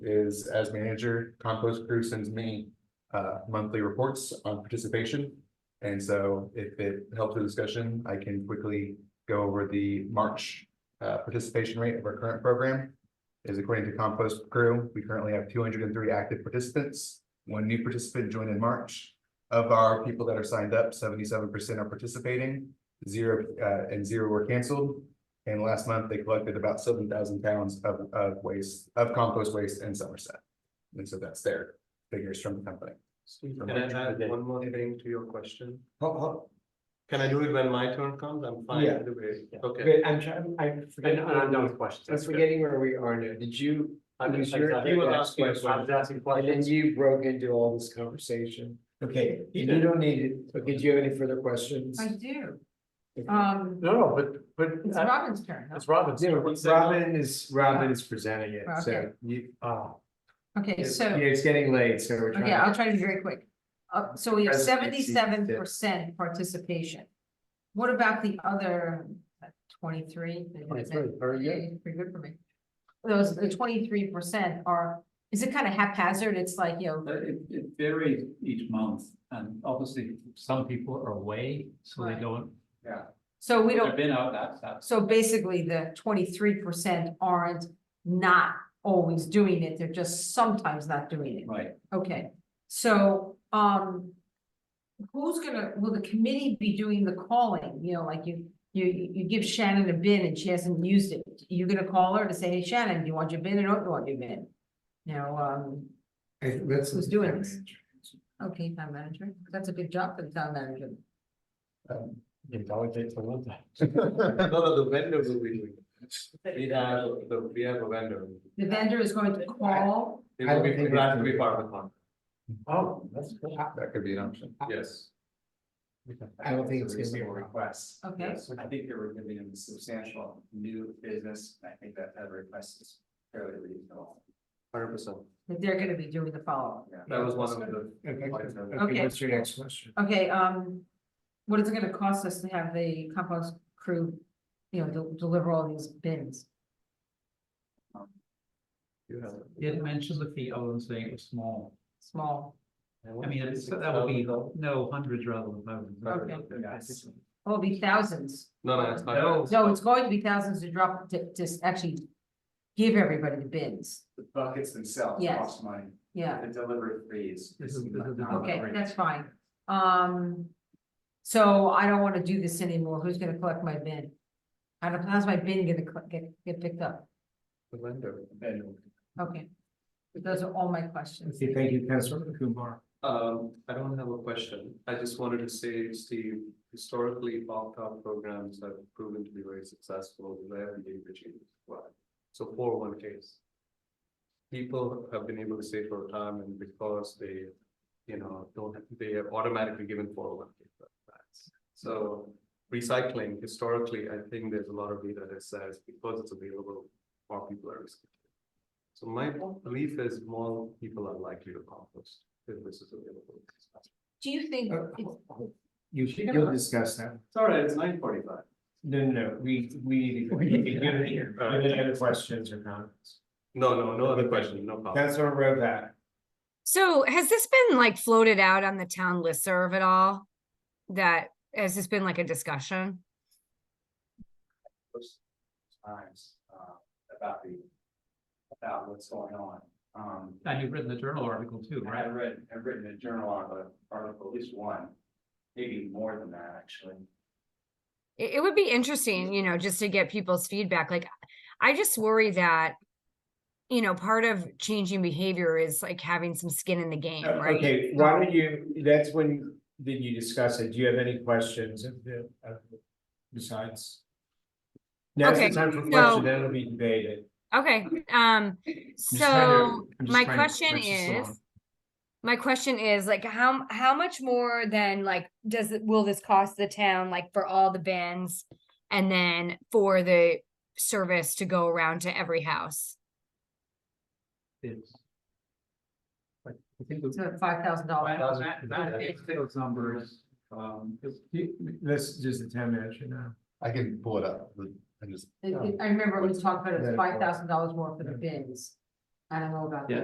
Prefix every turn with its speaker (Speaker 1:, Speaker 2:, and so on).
Speaker 1: is as manager, compost crew sends me uh monthly reports on participation. And so if it helps the discussion, I can quickly go over the March uh participation rate of our current program. Is according to compost crew, we currently have two hundred and three active participants. One new participant joined in March. Of our people that are signed up, seventy-seven percent are participating, zero uh and zero were canceled. And last month, they collected about seven thousand pounds of of waste, of compost waste in Somerset. And so that's their figures from the company.
Speaker 2: Can I add one more thing to your question?
Speaker 3: Ho- ho-
Speaker 2: Can I do it when my turn comes? I'm fine
Speaker 3: Yeah.
Speaker 2: either way.
Speaker 3: Yeah.
Speaker 2: Okay.
Speaker 3: Wait, I'm trying, I'm
Speaker 4: And
Speaker 3: forgetting,
Speaker 4: and I'm done
Speaker 3: I'm
Speaker 4: with questions. that's good.
Speaker 3: forgetting where we are now, did you,
Speaker 4: I'm
Speaker 3: who's
Speaker 4: just,
Speaker 3: your-
Speaker 4: I
Speaker 2: you were
Speaker 4: was
Speaker 2: last question.
Speaker 4: asking
Speaker 3: and then
Speaker 4: questions.
Speaker 3: you broke into all this conversation? Okay,
Speaker 2: He
Speaker 3: you
Speaker 2: did.
Speaker 3: don't need it, okay, do you have any further questions?
Speaker 5: I do.
Speaker 3: Okay.
Speaker 5: Um,
Speaker 4: No, no, but, but
Speaker 5: it's
Speaker 4: uh,
Speaker 5: Robin's turn. huh?
Speaker 4: it's Robin's.
Speaker 3: Yeah,
Speaker 2: What's that?
Speaker 3: Robin is, Robin is presenting it, so
Speaker 5: Okay.
Speaker 3: you,
Speaker 4: Oh,
Speaker 5: Okay,
Speaker 3: yeah,
Speaker 5: so,
Speaker 3: it's getting late, so we're trying.
Speaker 5: okay, I'll try to be very quick. Uh, so we have
Speaker 3: Presidency.
Speaker 5: seventy-seven percent participation. What about the other uh, twenty-three?
Speaker 3: 23, very good.
Speaker 5: Pretty good for me. Those, the twenty-three percent are, is it kind of haphazard? It's like, you know,
Speaker 6: Uh, It, it varies each month, and obviously, some people are away, so they
Speaker 5: Right.
Speaker 6: don't,
Speaker 5: so we
Speaker 6: they've
Speaker 5: don't,
Speaker 6: been out, that's, that's.
Speaker 5: so basically the twenty-three percent aren't not always doing it. They're just sometimes not doing it.
Speaker 6: Right,
Speaker 5: Okay, so, um. Who's gonna, will the committee be doing the calling, you know, like you, you, you give Shannon a bin and she hasn't used it, you gonna call her to say, hey Shannon, do you want your bin or don't you want your bin? You know, um,
Speaker 3: I think that's.
Speaker 5: Who's doing this? okay, town manager, that's a big job for the town manager,
Speaker 1: Um,
Speaker 4: you delegate for one thing.
Speaker 2: No, no, the vendor will be doing. it. We have, the- we have a vendor.
Speaker 5: the vendor is going to call,
Speaker 2: It
Speaker 3: I
Speaker 2: will be,
Speaker 3: don't think
Speaker 2: it has to
Speaker 3: it's-
Speaker 2: be part of the contract.
Speaker 4: Oh, that's good.
Speaker 1: That could be an option.
Speaker 2: Yes.
Speaker 3: I don't think it's gonna be a
Speaker 4: reasonable
Speaker 3: problem.
Speaker 4: Request.
Speaker 5: Okay.
Speaker 4: Yes, I think they were giving them substantial new business, and I think that that request is fairly reasonable.
Speaker 2: Hundred percent.
Speaker 5: that they're gonna be doing the follow-up.
Speaker 4: Yeah.
Speaker 2: That was one of the.
Speaker 3: Okay,
Speaker 2: points of-
Speaker 3: okay, what's your next question?
Speaker 5: Okay, um, what is it gonna cost us to have the compost crew, you know, del- deliver all these bins?
Speaker 2: You have it.
Speaker 6: you didn't mention the fee, other than saying it was small,
Speaker 5: Small,
Speaker 6: I mean, it's- that would be, no, hundreds rather than
Speaker 5: Okay.
Speaker 6: thousands.
Speaker 4: Yes.
Speaker 5: oh, it'll be thousands.
Speaker 2: No, no, it's
Speaker 6: No.
Speaker 2: not.
Speaker 5: No, it's going to be thousands to drop, to, to actually give everybody the bins.
Speaker 4: The buckets themselves
Speaker 5: Yes.
Speaker 4: cost money,
Speaker 5: Yeah,
Speaker 4: the delivery fees.
Speaker 6: This is- this is-
Speaker 5: okay, that's fine. Um, so I don't wanna do this anymore. Who's gonna collect my bin? I don't, how's my bin gonna cl- get, get picked up?
Speaker 2: The vendor.
Speaker 4: Then
Speaker 5: Okay. Those are all my questions.
Speaker 3: Okay, thank you, Councilor Kumar.
Speaker 2: Um, I don't have a question. I just wanted to say, Steve, historically, opt-out programs have proven to be very successful, rarely achieved. So four oh one Ks. People have been able to save for retirement because they, you know, don't, they are automatically given four oh one K plans. So recycling, historically, I think there's a lot of data that says because it's available, more people are recycling. So my belief is more people are likely to compost if this is available.
Speaker 5: Do you think,
Speaker 3: Uh,
Speaker 5: it's-
Speaker 3: You, you'll discuss that.
Speaker 2: It's all right, it's nine forty-five.
Speaker 3: No, no, no, we, we.
Speaker 4: We need to get it
Speaker 3: Give any other questions or comments?
Speaker 2: No, no, no other question, no problem.
Speaker 3: Councilor Rovak.
Speaker 7: So has this been like floated out on the town listserv at all? That, has this been like a discussion?
Speaker 4: those times, uh, about the, about what's going on. Um,
Speaker 6: And you've written the journal article too,
Speaker 4: I
Speaker 6: right?
Speaker 4: have read, I've written a journal article, article, at least one, maybe more than that, actually.
Speaker 7: It, it would be interesting, you know, just to get people's feedback. Like, I just worry that, you know, part of changing behavior is like having some skin in the game, right?
Speaker 3: Okay, why don't you, that's when, then you discuss it, do you have any questions of the, of the, besides? Now's the
Speaker 7: Okay,
Speaker 3: time for
Speaker 7: so-
Speaker 3: questions, then it'll be debated.
Speaker 7: Okay, um, so my question is. My question is like, how, how much more than like, does it, will this cost the town like for all the bins? And then for the service to go around to every house?
Speaker 6: It's- But I think the-
Speaker 5: it's five thousand dollars?
Speaker 6: Well, that- that is Those numbers, um, it's-
Speaker 3: This is just the town manager now.
Speaker 1: I can pull it up. I just
Speaker 5: I remember we talked about it,
Speaker 3: Yeah.
Speaker 5: five thousand dollars more for the bins. I don't know about
Speaker 2: Yeah,
Speaker 5: that.